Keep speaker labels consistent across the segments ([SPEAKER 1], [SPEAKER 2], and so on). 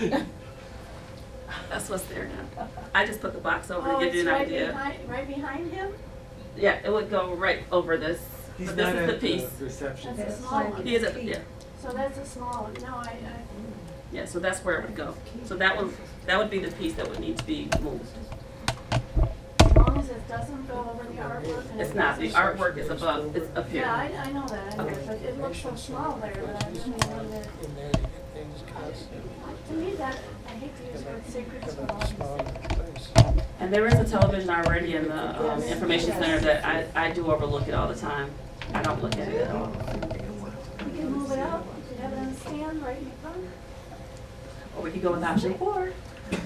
[SPEAKER 1] That's what's there now. I just put the box over
[SPEAKER 2] Oh,
[SPEAKER 1] to give you
[SPEAKER 2] it's
[SPEAKER 1] an
[SPEAKER 2] right
[SPEAKER 1] idea.
[SPEAKER 2] behind, right behind him?
[SPEAKER 1] Yeah, it would go right over this,
[SPEAKER 3] He's
[SPEAKER 1] but
[SPEAKER 3] not
[SPEAKER 1] this is the
[SPEAKER 3] at the
[SPEAKER 1] piece.
[SPEAKER 3] reception.
[SPEAKER 2] That's
[SPEAKER 3] desk.
[SPEAKER 2] a small one.
[SPEAKER 1] He is at the, yeah,
[SPEAKER 2] So that's a small, one. no, I, I,
[SPEAKER 1] yeah, so that's where it would go. So that would, that would be the piece that would need to be moved.
[SPEAKER 2] as long as it doesn't go over the artwork and.
[SPEAKER 1] It's
[SPEAKER 2] it
[SPEAKER 1] not, the
[SPEAKER 2] doesn't-
[SPEAKER 1] artwork is above, it's up
[SPEAKER 2] Yeah,
[SPEAKER 1] here.
[SPEAKER 2] I, I know that, I know,
[SPEAKER 1] Okay.
[SPEAKER 2] but it looks so small there, that I really wonder,
[SPEAKER 4] In there, you get things constant.
[SPEAKER 2] to me that, I hate to use the word sacred small.
[SPEAKER 1] And there is a television already in the um, information center that I, I do overlook it all the time. I don't look at it at all.
[SPEAKER 2] We can move it out, we can have it on the stand right in front.
[SPEAKER 1] Or we could go with option four.
[SPEAKER 5] Is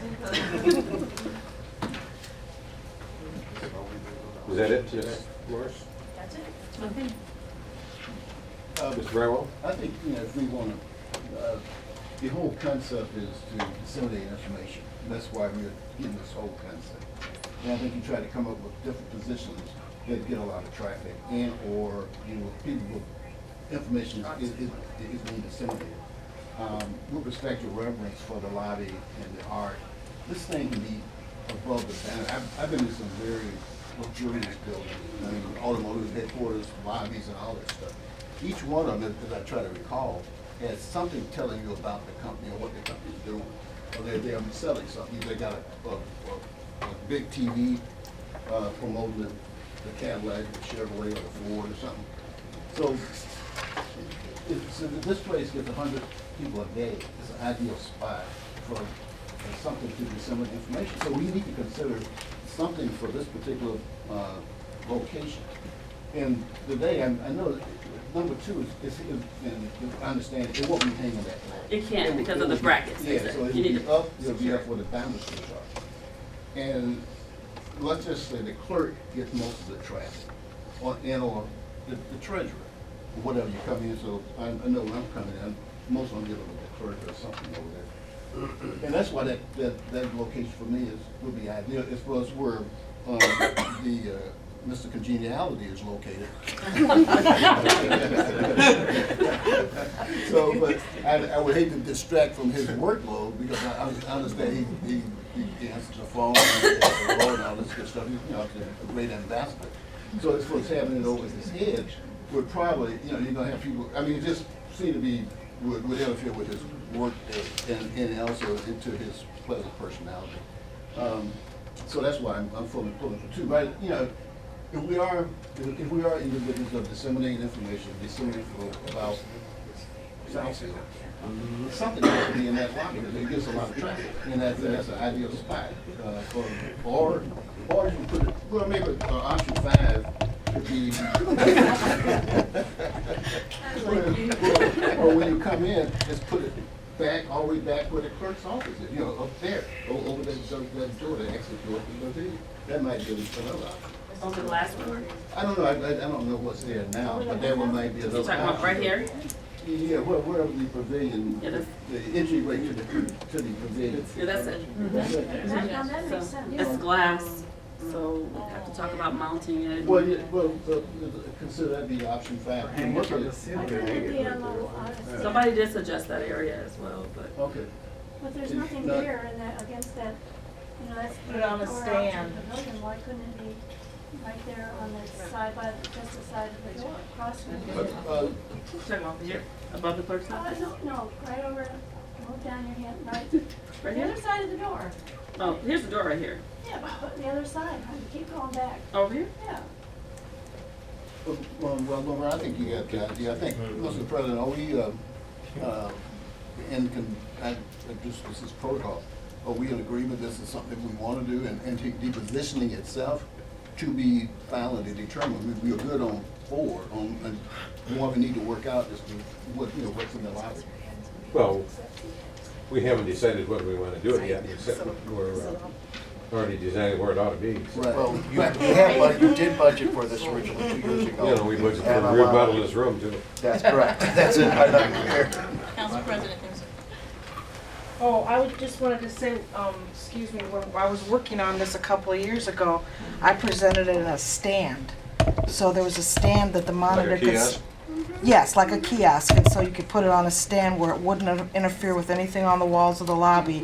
[SPEAKER 5] that it, yes, Morris?
[SPEAKER 2] That's it.
[SPEAKER 6] Uh,
[SPEAKER 5] Mr. Brightwell?
[SPEAKER 6] I think, you know, if we want to, the whole concept is to disseminate information. That's why we're getting this whole concept. And I think you try to come up with different positions that get a lot of traffic and/or, you know, people, with information is, is is being disseminated. Um, With respect to reverence for the lobby and the art, this thing can be above the banner. I've, I've been in some very luxurious buildings, I mean, automotive headquarters, lobbies and all that stuff. Each one of them, as I try to recall, has something telling you about the company or what the company's doing. Or they're, they're selling something, they got a, a, a- a big TV uh, promoting the the Cadillac, or Chevrolet, or Ford or something. So if, so if this place gets a hundred people a day, it's an ideal spot for, for something to disseminate information. So we need to consider something for this particular, uh, location. And today, I, I know, that number two is, is, is- and I understand, it won't be hanging that long.
[SPEAKER 1] It can't
[SPEAKER 6] will-
[SPEAKER 1] because
[SPEAKER 6] it
[SPEAKER 1] of
[SPEAKER 6] will
[SPEAKER 1] the
[SPEAKER 6] be-
[SPEAKER 1] brackets, they
[SPEAKER 6] Yeah,
[SPEAKER 1] said.
[SPEAKER 6] so it'll
[SPEAKER 1] You need
[SPEAKER 6] be
[SPEAKER 1] to
[SPEAKER 6] up, it'll be
[SPEAKER 1] secure
[SPEAKER 6] up
[SPEAKER 1] it.
[SPEAKER 6] where the boundaries are. And let's just say the clerk gets most of the traffic, or, and or the the treasurer, or whatever you come in, so I, I know when I'm coming in, most of them dealing with the clerk or something over there. And that's why that, that, that location for me is, would be ideal, as well as where, um, the, uh, Mr. Congeniality is located. So, but I, I would hate to distract from his workload because I, I understand he, he, he answers the phone and answers the road and all this good stuff. He's, you know, a great ambassador. So as far as having it over his head, would probably, you know, you're gonna have people, I mean, it just seem to be, would, would interfere with his work and, and also into his pleasant personality. Um, so that's why I'm, I'm fully pulling for two, but, you know, if we are, if if we are in the business of disseminating information, disseminating about Southfield, Mm, something has to be in that lobby, because it gets a lot of traffic, and that's, that's an ideal spot, uh, for, or, or you put it, well, maybe, uh, option five could be. Or- Or when you come in, just put it back, all the way back where the clerk's office is, you know, up there, o- over that, that door, the exit door, you know, that might be another option.
[SPEAKER 1] Over the last one.
[SPEAKER 6] I don't know, I, I I don't know what's there now, but that one might be a
[SPEAKER 1] You
[SPEAKER 6] little.
[SPEAKER 1] talking about right here?
[SPEAKER 6] Yeah, where, where the pavilion,
[SPEAKER 1] Yeah, that's-
[SPEAKER 6] the entryway to the, to the pavilion. Mm-hmm.
[SPEAKER 1] Yeah, that's it.
[SPEAKER 6] That's it.
[SPEAKER 2] That, now that
[SPEAKER 1] So
[SPEAKER 2] makes sense.
[SPEAKER 1] It's glass, so we'll have to talk about mounting it.
[SPEAKER 6] Well, yeah, well, the- the- consider that be option five.
[SPEAKER 3] Hang it from the
[SPEAKER 2] I
[SPEAKER 3] ceiling.
[SPEAKER 2] couldn't be on the, um, on the-
[SPEAKER 1] Somebody did suggest that area as well, but.
[SPEAKER 6] Okay,
[SPEAKER 2] But there's
[SPEAKER 6] If
[SPEAKER 2] nothing
[SPEAKER 6] not-
[SPEAKER 2] there in that, against that, you know, that's.
[SPEAKER 7] Put it on a
[SPEAKER 2] door out to
[SPEAKER 7] stand.
[SPEAKER 2] the pavilion. Why couldn't it be right there on the side by, just the side of the door, across from the
[SPEAKER 6] but,
[SPEAKER 2] door?
[SPEAKER 6] uh,
[SPEAKER 1] You Talking about here, above the clerk's
[SPEAKER 2] Uh,
[SPEAKER 1] office?
[SPEAKER 2] no, no, right over, move down your hand, right,
[SPEAKER 1] Right
[SPEAKER 2] the
[SPEAKER 1] here?
[SPEAKER 2] other side of the door.
[SPEAKER 1] Oh, here's the door right here.
[SPEAKER 2] Yeah, but the other side, huh? You keep going back,
[SPEAKER 1] Over here?
[SPEAKER 2] yeah.
[SPEAKER 6] well, well, Norman, I think you got the idea, I think, Mr. President, are we, uh, uh, in, con- I, I just, this is protocol. Are we in agreement this is something we wanna do, and, and to- the positioning itself to be finally determined? We, we are good on four, on, and what we need to work out is what, you know, what's in the library.
[SPEAKER 5] Well, we haven't decided whether we want to do it yet, except we're uh, already deciding where it ought to be. so.
[SPEAKER 6] Well,
[SPEAKER 8] You you had, bud- you did budget for this originally two years ago.
[SPEAKER 5] You know, we
[SPEAKER 8] And
[SPEAKER 5] budgeted for a
[SPEAKER 8] I'm, uh,
[SPEAKER 5] remodel of this room too.
[SPEAKER 8] That's correct. That's it. I thought you were here.
[SPEAKER 9] Council President, there's
[SPEAKER 7] Oh, I would- just wanted to say, um, excuse me, when I was working on this a couple of years ago, I presented it in a stand. So there was a stand that the monitor could. s-
[SPEAKER 5] kiosk?
[SPEAKER 7] Yes, like a kiosk, and so you could put it on a stand where it wouldn't interfere with anything on the walls of the lobby.